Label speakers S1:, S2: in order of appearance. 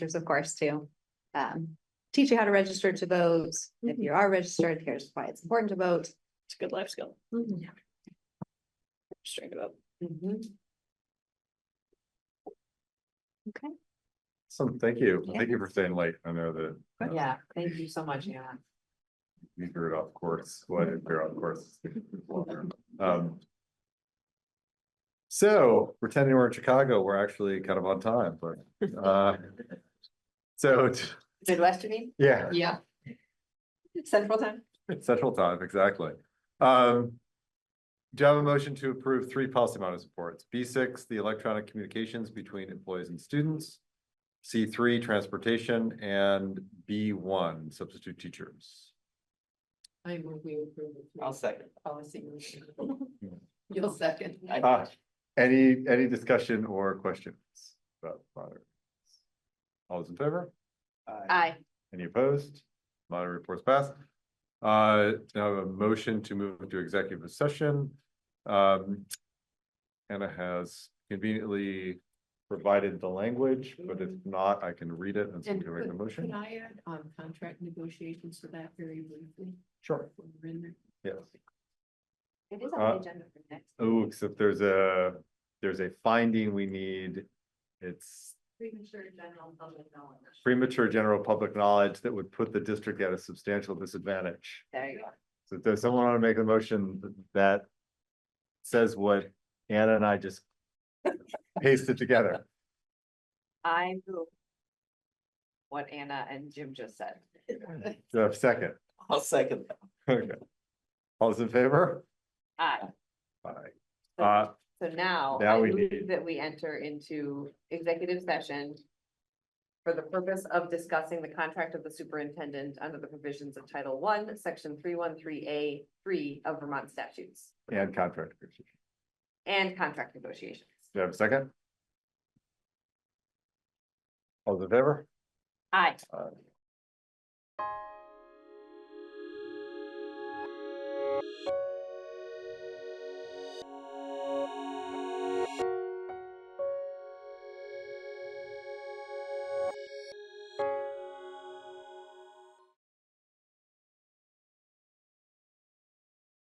S1: there's of course to um teach you how to register to vote. If
S2: Mm-hmm.
S1: you are registered, here's why it's important to vote.
S3: It's a good life skill.
S2: Mm-hmm.
S3: Straight up.
S1: Mhm. Okay,
S4: So thank you.
S1: Yeah. Oh,
S4: Thank you for staying late. I know that. uh,
S2: Yeah, thank you so much, Anna.
S4: You threw it off course, what if you're off course? Um, So pretending we're in Chicago, we're actually kind of on time, but uh. So, t-
S2: Midwestern, mean?
S4: yeah,
S2: Yeah. Central time?
S4: central time, exactly. Um. Do you have a motion to approve three policy model reports? B six, the electronic communications between employees and students. C three, transportation, and B one, substitute teachers.
S2: I will be approved.
S5: I'll second.
S2: Policy. You'll second.
S4: Uh, any, any discussion or questions about moderate? reports? All those in favor?
S1: aye,
S4: Any opposed? Moderate reports passed. Uh, now a motion to move into executive session. Um. Anna has conveniently provided the language, but if not, I can read it and so we can make the
S2: Can
S4: motion.
S2: I add on contract negotiations to that very briefly?
S4: Sure.
S2: when we're in there?
S4: Yes.
S1: it is on
S4: Uh,
S1: the agenda for next.
S4: Oh, except there's a, there's a finding we need. It's
S2: Premature general public knowledge.
S4: premature general public knowledge that would put the district at a substantial disadvantage.
S2: There you go.
S4: So does someone want to make a motion that says what Anna and I just pasted together?
S2: I move. What Anna and Jim just said.
S4: Do I have a second?
S5: I'll second. that.
S4: Okay. All those in favor?
S2: Aye.
S4: Aye.
S2: So-
S4: Uh,
S2: So now.
S4: Now
S2: I
S4: we
S2: move
S4: need-
S2: That we enter into executive session. For the purpose of discussing the contract of the superintendent under the provisions of Title One, Section three one three A three of Vermont statutes.
S4: and contract. negotiation.
S2: And contract negotiations.
S4: Do I have a second? All those in favor?
S2: Aye.
S4: Aye.